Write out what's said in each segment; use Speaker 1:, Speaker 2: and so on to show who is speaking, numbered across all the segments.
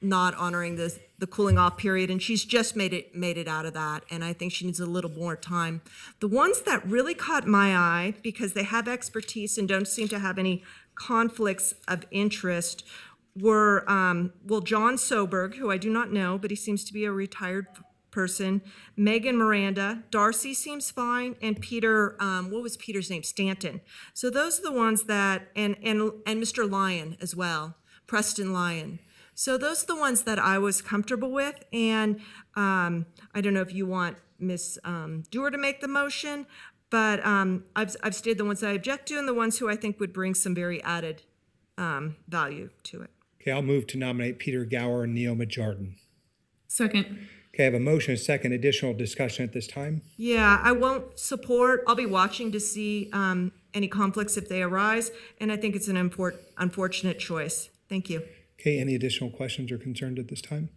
Speaker 1: not honoring the, the cooling off period, and she's just made it, made it out of that, and I think she needs a little more time. The ones that really caught my eye, because they have expertise and don't seem to have any conflicts of interest, were, um, well, John Soberg, who I do not know, but he seems to be a retired person, Megan Miranda, Darcy seems fine, and Peter, um, what was Peter's name? Stanton. So those are the ones that, and, and, and Mr. Lyon as well, Preston Lyon. So those are the ones that I was comfortable with, and, um, I don't know if you want Ms. um, Dewar to make the motion, but, um, I've, I've stated the ones I object to and the ones who I think would bring some very added, um, value to it.
Speaker 2: Okay, I'll move to nominate Peter Gower and Neoma Jordan.
Speaker 3: Second.
Speaker 2: Okay, I have a motion, a second, additional discussion at this time.
Speaker 1: Yeah, I won't support, I'll be watching to see um, any conflicts if they arise, and I think it's an import, unfortunate choice. Thank you.
Speaker 2: Okay, any additional questions or concerns at this time?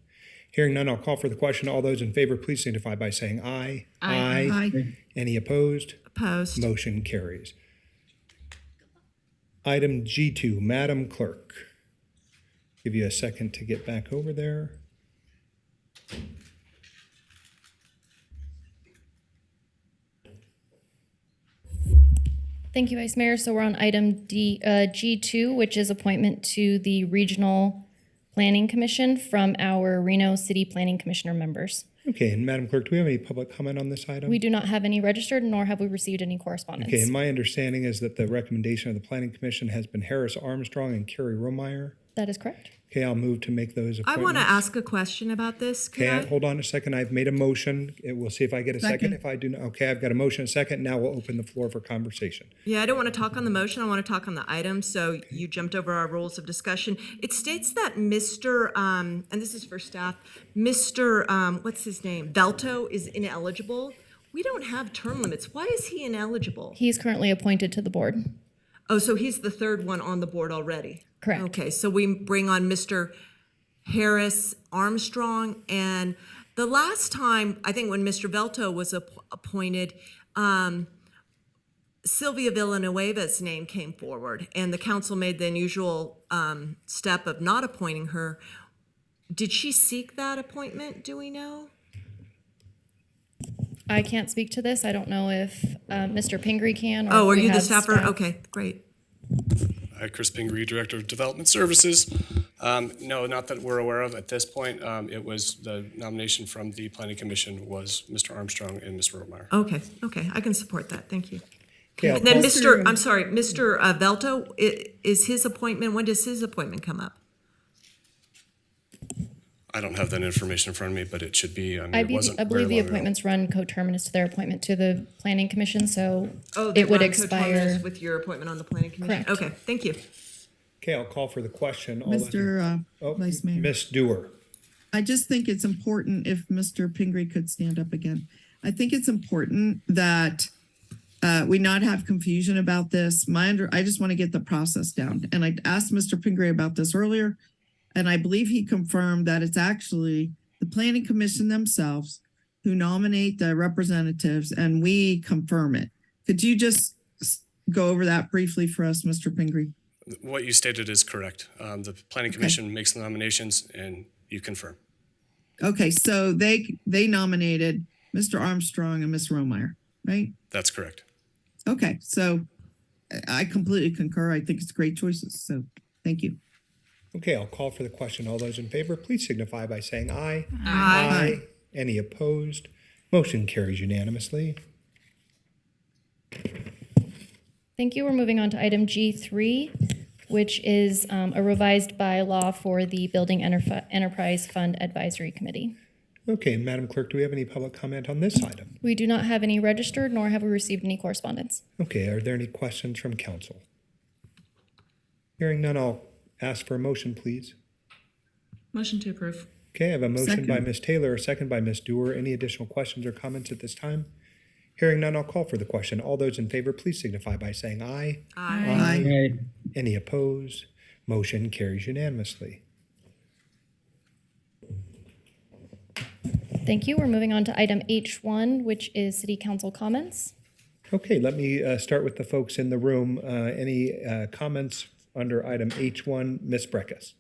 Speaker 2: Hearing none, I'll call for the question. All those in favor, please signify by saying aye.
Speaker 3: Aye.
Speaker 2: Any opposed?
Speaker 1: Opposed.
Speaker 2: Motion carries. Item G2, Madam Clerk. Give you a second to get back over there.
Speaker 4: Thank you, Vice Mayor. So we're on item D, uh, G2, which is appointment to the Regional Planning Commission from our Reno City Planning Commissioner members.
Speaker 2: Okay, and Madam Clerk, do we have any public comment on this item?
Speaker 4: We do not have any registered, nor have we received any correspondence.
Speaker 2: Okay, and my understanding is that the recommendation of the Planning Commission has been Harris Armstrong and Carrie Romeyer.
Speaker 4: That is correct.
Speaker 2: Okay, I'll move to make those
Speaker 1: I
Speaker 2: appointments.
Speaker 1: want to ask a question about this. Could I?
Speaker 2: Okay, hold on a second. I've made a motion. It- We'll see if I get a second.
Speaker 3: Second.
Speaker 2: If I do, not okay, I've got a motion, a second. Now we'll open the floor for conversation.
Speaker 1: Yeah, I don't want to talk on the motion. I want to talk on the item, so you jumped over our rules of discussion. It states that Mr., um, and this is for staff, Mr., um, what's his name? Velto is ineligible. We don't have term limits. Why is he ineligible?
Speaker 4: He is currently appointed to the board.
Speaker 1: Oh, so he's the third one on the board already?
Speaker 4: Correct.
Speaker 1: Okay, so we bring on Mr. Harris Armstrong, and the last time, I think when Mr. Velto was app- appointed, um, Sylvia Villanueva's name came forward, and the council made the unusual um, step of not appointing her. Did she seek that appointment, do we know?
Speaker 4: I can't speak to this. I don't know if uh, Mr. Pingree can. or
Speaker 1: Oh,
Speaker 4: if
Speaker 1: are
Speaker 4: we
Speaker 1: you the
Speaker 4: have
Speaker 1: staffer?
Speaker 4: staff.
Speaker 1: Okay, great.
Speaker 5: Hi, Chris Pingree, Director of Development Services. Um, No, not that we're aware of at this point. Um, It was, the nomination from the Planning Commission was Mr. Armstrong and Ms. Romeyer.
Speaker 1: Okay, okay, I can support that, thank you.
Speaker 2: Okay, I'll
Speaker 1: And Then
Speaker 2: call-
Speaker 1: Mr., I'm sorry, Mr. uh, Velto, i- is his appointment, when does his appointment come up?
Speaker 5: I don't have that information in front of me, but it should be, I mean,
Speaker 4: I
Speaker 5: it
Speaker 4: be-
Speaker 5: wasn't
Speaker 4: I
Speaker 5: very
Speaker 4: believe the
Speaker 5: long ago.
Speaker 4: appointments run coterminous to their appointment to the Planning Commission, so
Speaker 1: Oh, they're
Speaker 4: it would
Speaker 1: not coterminous
Speaker 4: expire.
Speaker 1: With your appointment on the planning commission?
Speaker 4: Correct.
Speaker 1: Okay, thank you.
Speaker 2: okay, I'll call for the question. All Oh, those-
Speaker 3: Mr. uh, Vice Mayor,
Speaker 2: Ms. Dewar.
Speaker 3: I just think it's important if Mr. Pingree could stand up again. I think it's important that uh, we not have confusion about this. My under, I just want to get the process down. And I asked Mr. Pingree about this earlier, and I believe he confirmed that it's actually the planning commission themselves who nominate the representatives and we confirm it. Could you just s- go over that briefly for us, Mr. Pingree?
Speaker 5: What you stated is correct. Um, The Planning Commission makes the nominations and you confirm.
Speaker 3: Okay, so they they nominated Mr. Armstrong and Miss Romeyer, right?
Speaker 5: That's correct.
Speaker 3: Okay, so I- I completely concur. I think it's great choices. So thank you.
Speaker 2: Okay, I'll call for the question. All those in favor, please signify by saying aye.
Speaker 1: Aye.
Speaker 2: Any opposed? Motion carries unanimously.
Speaker 4: Thank you. We're moving on to item G3, which is um, a revised bylaw for the Building Enterf- Enterprise Fund Advisory Committee.
Speaker 2: Okay, Madam Clerk, do we have any public comment on this item?
Speaker 4: We do not have any registered, nor have we received any correspondence.
Speaker 2: Okay, are there any questions from council? Hearing none, I'll ask for a motion, please.
Speaker 6: Motion to approve.
Speaker 2: Okay, I have a motion by
Speaker 3: Second.
Speaker 2: Ms. Taylor, a second by Ms. Dewar. Any additional questions or comments at this time? Hearing none, I'll call for the question. All those in favor, please signify by saying aye.
Speaker 3: Aye.
Speaker 2: Any opposed? Motion carries unanimously.
Speaker 4: Thank you. We're moving on to item H1, which is city council comments.
Speaker 2: Okay, let me uh, start with the folks in the room. Uh, Any uh, comments under item H1? Ms. Breckus?